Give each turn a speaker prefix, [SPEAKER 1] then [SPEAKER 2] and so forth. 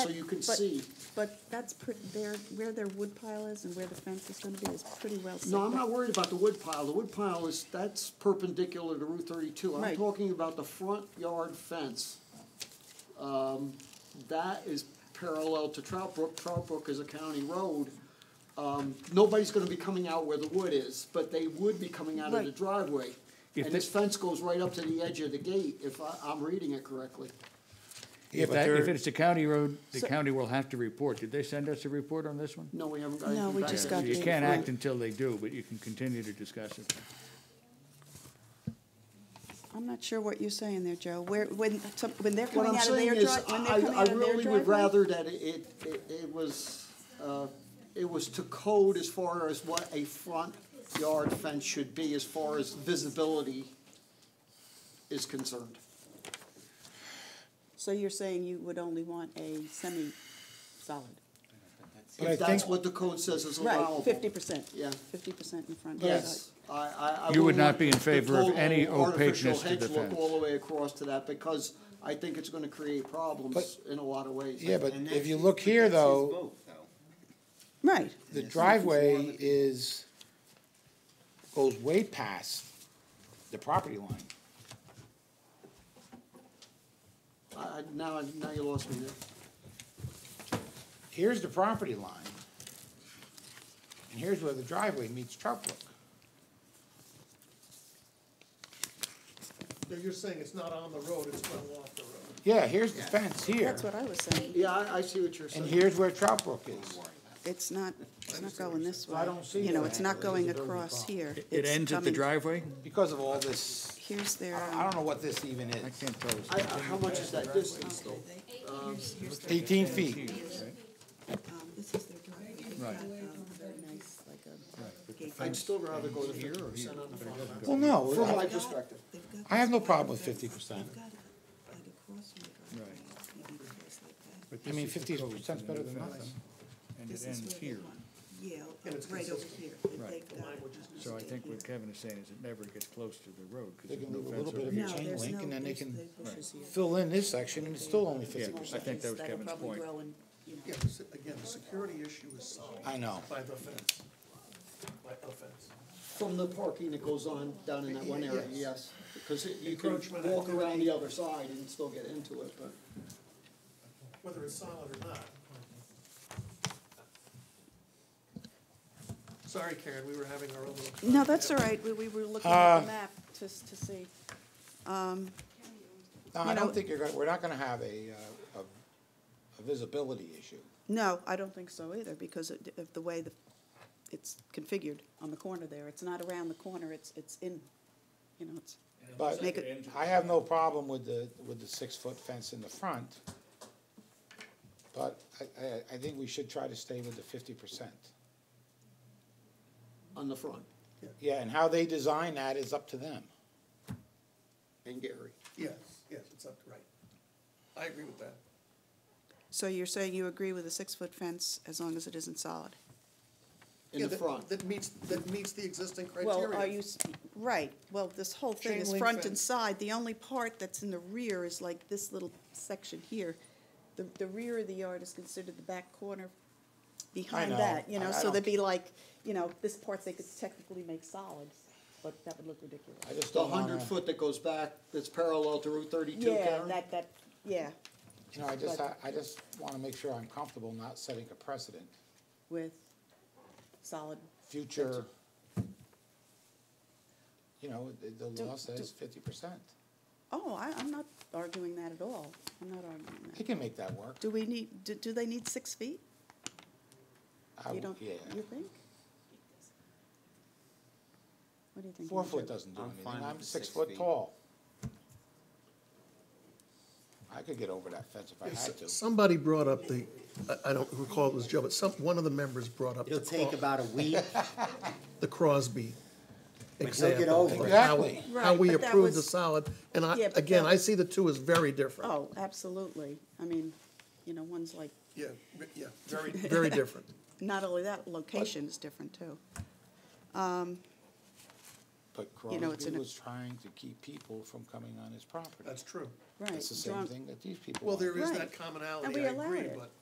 [SPEAKER 1] So you can
[SPEAKER 2] But-
[SPEAKER 1] see,
[SPEAKER 2] But that's pretty, there, where their wood pile is and where the fence is gonna be is pretty well set
[SPEAKER 1] no, I'm
[SPEAKER 2] back.
[SPEAKER 1] not worried about the wood pile, the wood pile is, that's perpendicular to Route thirty-two, I'm
[SPEAKER 2] Right.
[SPEAKER 1] talking about the front yard fence. Um, that is parallel to Trout Brook, Trout Brook is a county road. Um, nobody's gonna be coming out where the wood is, but they would be coming out of the
[SPEAKER 2] Right.
[SPEAKER 1] driveway.
[SPEAKER 3] If
[SPEAKER 1] And
[SPEAKER 3] they-
[SPEAKER 1] this fence goes right up to the edge of the gate, if I, I'm reading it correctly.
[SPEAKER 3] If
[SPEAKER 4] But
[SPEAKER 3] that, if
[SPEAKER 4] there-
[SPEAKER 3] it's a county road, the
[SPEAKER 2] So-
[SPEAKER 3] county will have to report. Did they send us a report on this one?
[SPEAKER 1] No, we haven't got
[SPEAKER 2] No,
[SPEAKER 1] anything
[SPEAKER 2] we
[SPEAKER 1] back
[SPEAKER 2] just
[SPEAKER 1] yet.
[SPEAKER 2] got
[SPEAKER 3] You
[SPEAKER 2] the-
[SPEAKER 3] can't act until they do, but you can continue to discuss it.
[SPEAKER 2] I'm not sure what you're saying there, Joe, where, when, some- when they're
[SPEAKER 1] What
[SPEAKER 2] coming
[SPEAKER 1] I'm
[SPEAKER 2] out of
[SPEAKER 1] saying
[SPEAKER 2] their
[SPEAKER 1] is,
[SPEAKER 2] drive, when they're
[SPEAKER 1] I,
[SPEAKER 2] coming
[SPEAKER 1] I
[SPEAKER 2] out of their
[SPEAKER 1] really would
[SPEAKER 2] driveway.
[SPEAKER 1] rather that it, it, it was, uh, it was to code as far as what a front yard fence should be as far as visibility is concerned.
[SPEAKER 2] So you're saying you would only want a semi-solid,
[SPEAKER 4] But I
[SPEAKER 1] If that's
[SPEAKER 4] think-
[SPEAKER 1] what the code says is allowable.
[SPEAKER 2] right, fifty percent?
[SPEAKER 1] Yeah.
[SPEAKER 2] Fifty percent in front. and
[SPEAKER 1] Yes,
[SPEAKER 2] side.
[SPEAKER 1] I, I, I.
[SPEAKER 3] You would
[SPEAKER 1] wouldn't
[SPEAKER 3] not
[SPEAKER 1] want
[SPEAKER 3] be in
[SPEAKER 1] the
[SPEAKER 3] favor of
[SPEAKER 1] total
[SPEAKER 3] any
[SPEAKER 1] artificial
[SPEAKER 3] opaqueness to the
[SPEAKER 1] hedge look
[SPEAKER 3] fence.
[SPEAKER 1] All the way across to that, because I think it's gonna create problems
[SPEAKER 4] But-
[SPEAKER 1] in a lot of ways.
[SPEAKER 4] Yeah, but
[SPEAKER 5] And
[SPEAKER 4] if
[SPEAKER 5] that's-
[SPEAKER 4] you look
[SPEAKER 5] but
[SPEAKER 4] here,
[SPEAKER 5] that's his
[SPEAKER 4] though,
[SPEAKER 5] vote, though.
[SPEAKER 2] Right,
[SPEAKER 4] the driveway is, goes way past the property line.
[SPEAKER 1] I, I- now, now you lost me there.
[SPEAKER 4] Here's the property line. And here's where the driveway meets Trout Brook.
[SPEAKER 6] No, you're saying it's not on the road, it's well off the road.
[SPEAKER 4] Yeah, here's the fence here,
[SPEAKER 2] that's what I was saying,
[SPEAKER 1] Yeah, I, I see what you're saying.
[SPEAKER 4] and here's where Trout Brook is.
[SPEAKER 2] it's not, it's not going this way.
[SPEAKER 4] I don't see
[SPEAKER 2] You know,
[SPEAKER 4] that.
[SPEAKER 2] it's not going
[SPEAKER 4] It's a building
[SPEAKER 2] across
[SPEAKER 4] problem.
[SPEAKER 2] here.
[SPEAKER 3] It
[SPEAKER 2] It's
[SPEAKER 3] ends at the
[SPEAKER 2] coming-
[SPEAKER 3] driveway?
[SPEAKER 4] Because of all this,
[SPEAKER 2] Here's their,
[SPEAKER 4] I don't- I
[SPEAKER 2] um,
[SPEAKER 4] don't know what this even
[SPEAKER 3] I
[SPEAKER 4] is.
[SPEAKER 3] can't tell.
[SPEAKER 1] I, I- how much is that distance though?
[SPEAKER 4] Eighteen feet.
[SPEAKER 2] um, this is their driveway. They've
[SPEAKER 3] Right.
[SPEAKER 2] got, um, Very nice, like a gate.
[SPEAKER 1] I'd still rather go to fifty percent on the front line.
[SPEAKER 4] Well, no,
[SPEAKER 1] From my
[SPEAKER 4] I-
[SPEAKER 1] perspective.
[SPEAKER 7] They've got
[SPEAKER 4] I have no problem with fifty percent.
[SPEAKER 7] got it, like across from the driveway, maybe across like that.
[SPEAKER 4] I mean, fifty percent's better than nothing.
[SPEAKER 3] And
[SPEAKER 7] This
[SPEAKER 3] it
[SPEAKER 7] is
[SPEAKER 3] ends
[SPEAKER 7] where they
[SPEAKER 3] here.
[SPEAKER 7] want Yale, right over here. and
[SPEAKER 3] Right.
[SPEAKER 7] they've got it on
[SPEAKER 3] So I
[SPEAKER 7] state
[SPEAKER 3] think
[SPEAKER 7] here.
[SPEAKER 3] what Kevin is saying is it never gets close to the road
[SPEAKER 4] They
[SPEAKER 3] because there's
[SPEAKER 4] can
[SPEAKER 3] no
[SPEAKER 4] leave a
[SPEAKER 3] fence
[SPEAKER 4] little bit
[SPEAKER 3] over
[SPEAKER 4] of
[SPEAKER 3] here.
[SPEAKER 4] a
[SPEAKER 7] No,
[SPEAKER 4] chain
[SPEAKER 7] there's
[SPEAKER 4] link,
[SPEAKER 7] no,
[SPEAKER 4] and then they
[SPEAKER 7] there's,
[SPEAKER 4] can
[SPEAKER 7] there's bushes here.
[SPEAKER 4] fill in this section, and it's still only fifty
[SPEAKER 3] Yeah, I
[SPEAKER 4] percent.
[SPEAKER 3] think that was
[SPEAKER 2] That'll
[SPEAKER 3] Kevin's
[SPEAKER 2] probably
[SPEAKER 3] point.
[SPEAKER 2] grow and, you know.
[SPEAKER 6] Yeah, the se- again, the security issue is solved
[SPEAKER 4] I know.
[SPEAKER 6] by the fence, by the fence.
[SPEAKER 1] From the parking that goes on down in that one area, yes. Because it- you can
[SPEAKER 6] Encroachment
[SPEAKER 1] walk around the
[SPEAKER 6] activity.
[SPEAKER 1] other side and still get into it, but.
[SPEAKER 6] Whether it's solid or not. Sorry, Karen, we were having our own little.
[SPEAKER 2] No, that's all right, we, we were looking
[SPEAKER 4] Uh,
[SPEAKER 2] at the map just to see.
[SPEAKER 4] No,
[SPEAKER 2] You
[SPEAKER 4] I
[SPEAKER 2] know-
[SPEAKER 4] don't think you're gonna, we're not gonna have a, uh, a, a visibility issue.
[SPEAKER 2] No, I don't think so either, because of- of the way the, it's configured on the corner there, it's not around the corner, it's, it's in, you know, it's,
[SPEAKER 4] But
[SPEAKER 2] Make it-
[SPEAKER 4] I have no problem with the, with the six-foot fence in the front. But I, I, I think we should try to stay with the fifty percent.
[SPEAKER 1] On the front,
[SPEAKER 4] Yeah, and how they design that is up to them.
[SPEAKER 1] and Gary.
[SPEAKER 6] Yes, yes, it's up, right. I agree with that.
[SPEAKER 2] so you're saying you agree with a six-foot fence as long as it isn't solid?
[SPEAKER 1] In
[SPEAKER 6] Yeah,
[SPEAKER 1] the
[SPEAKER 6] that-
[SPEAKER 1] front.
[SPEAKER 6] That meets, that meets the existing criteria.
[SPEAKER 2] Well, are you, s- right, well, this whole thing
[SPEAKER 6] Chain
[SPEAKER 2] is
[SPEAKER 6] link
[SPEAKER 2] front and
[SPEAKER 6] fence.
[SPEAKER 2] side, the only part that's in the rear is like this little section here. The, the rear of the yard is considered the back corner behind
[SPEAKER 4] know.
[SPEAKER 2] that, you know,
[SPEAKER 4] I- I
[SPEAKER 2] so
[SPEAKER 4] don't-
[SPEAKER 2] there'd be like, you know, this part they could technically make solid, but that would look ridiculous.
[SPEAKER 4] I just
[SPEAKER 1] The
[SPEAKER 4] don't wanna,
[SPEAKER 1] hundred foot that goes back, that's parallel to Route thirty-two,
[SPEAKER 2] Yeah,
[SPEAKER 1] Karen?
[SPEAKER 2] that, that, yeah,
[SPEAKER 4] you know, I just, I, I just wanna make sure I'm comfortable not setting a precedent.
[SPEAKER 2] with solid,
[SPEAKER 4] Future, you know, the, the law
[SPEAKER 2] Do-
[SPEAKER 4] says fifty percent.
[SPEAKER 2] oh, I, I'm not arguing that at all, I'm not arguing
[SPEAKER 4] They
[SPEAKER 2] that.
[SPEAKER 4] can make that work.
[SPEAKER 2] Do we need, do, do they need six feet?
[SPEAKER 4] I
[SPEAKER 2] You
[SPEAKER 4] w-
[SPEAKER 2] don't, you
[SPEAKER 4] Yeah.
[SPEAKER 2] think? What do you think?
[SPEAKER 4] Four
[SPEAKER 2] Andrew?
[SPEAKER 4] foot doesn't do
[SPEAKER 5] I'm
[SPEAKER 4] anything,
[SPEAKER 5] fine
[SPEAKER 4] I'm
[SPEAKER 5] with the
[SPEAKER 4] six
[SPEAKER 5] six
[SPEAKER 4] foot
[SPEAKER 5] feet.
[SPEAKER 4] tall. I could get over that fence if I
[SPEAKER 6] If
[SPEAKER 4] had
[SPEAKER 6] s-
[SPEAKER 4] to.
[SPEAKER 6] Somebody brought up the, I, I don't recall if it was Joe, but some, one of the members brought up
[SPEAKER 5] It'll
[SPEAKER 6] the
[SPEAKER 5] take
[SPEAKER 6] Cro-
[SPEAKER 5] about a week.
[SPEAKER 6] the Crosby example.
[SPEAKER 5] over it.
[SPEAKER 6] and how-
[SPEAKER 4] Exactly.
[SPEAKER 6] How we
[SPEAKER 2] Right, but that
[SPEAKER 6] approved the
[SPEAKER 2] was-
[SPEAKER 6] solid, and I,
[SPEAKER 2] Yeah, but
[SPEAKER 6] again,
[SPEAKER 2] that-
[SPEAKER 6] I see the two as very different.
[SPEAKER 2] Oh, absolutely. I mean, you know, one's like,
[SPEAKER 6] Yeah, re- yeah, very, very different.
[SPEAKER 2] not only that, location is different too.
[SPEAKER 4] But
[SPEAKER 2] You know, it's
[SPEAKER 4] Crosby
[SPEAKER 2] in a-
[SPEAKER 4] was trying to keep people from coming on his property.
[SPEAKER 6] That's true.
[SPEAKER 2] right.
[SPEAKER 4] It's the same
[SPEAKER 2] John-
[SPEAKER 4] thing that these people
[SPEAKER 6] Well,
[SPEAKER 4] want.
[SPEAKER 6] there is
[SPEAKER 2] Right.
[SPEAKER 6] that
[SPEAKER 2] And
[SPEAKER 6] commonality,
[SPEAKER 2] we
[SPEAKER 6] I
[SPEAKER 2] allow
[SPEAKER 6] agree,
[SPEAKER 2] it.
[SPEAKER 6] but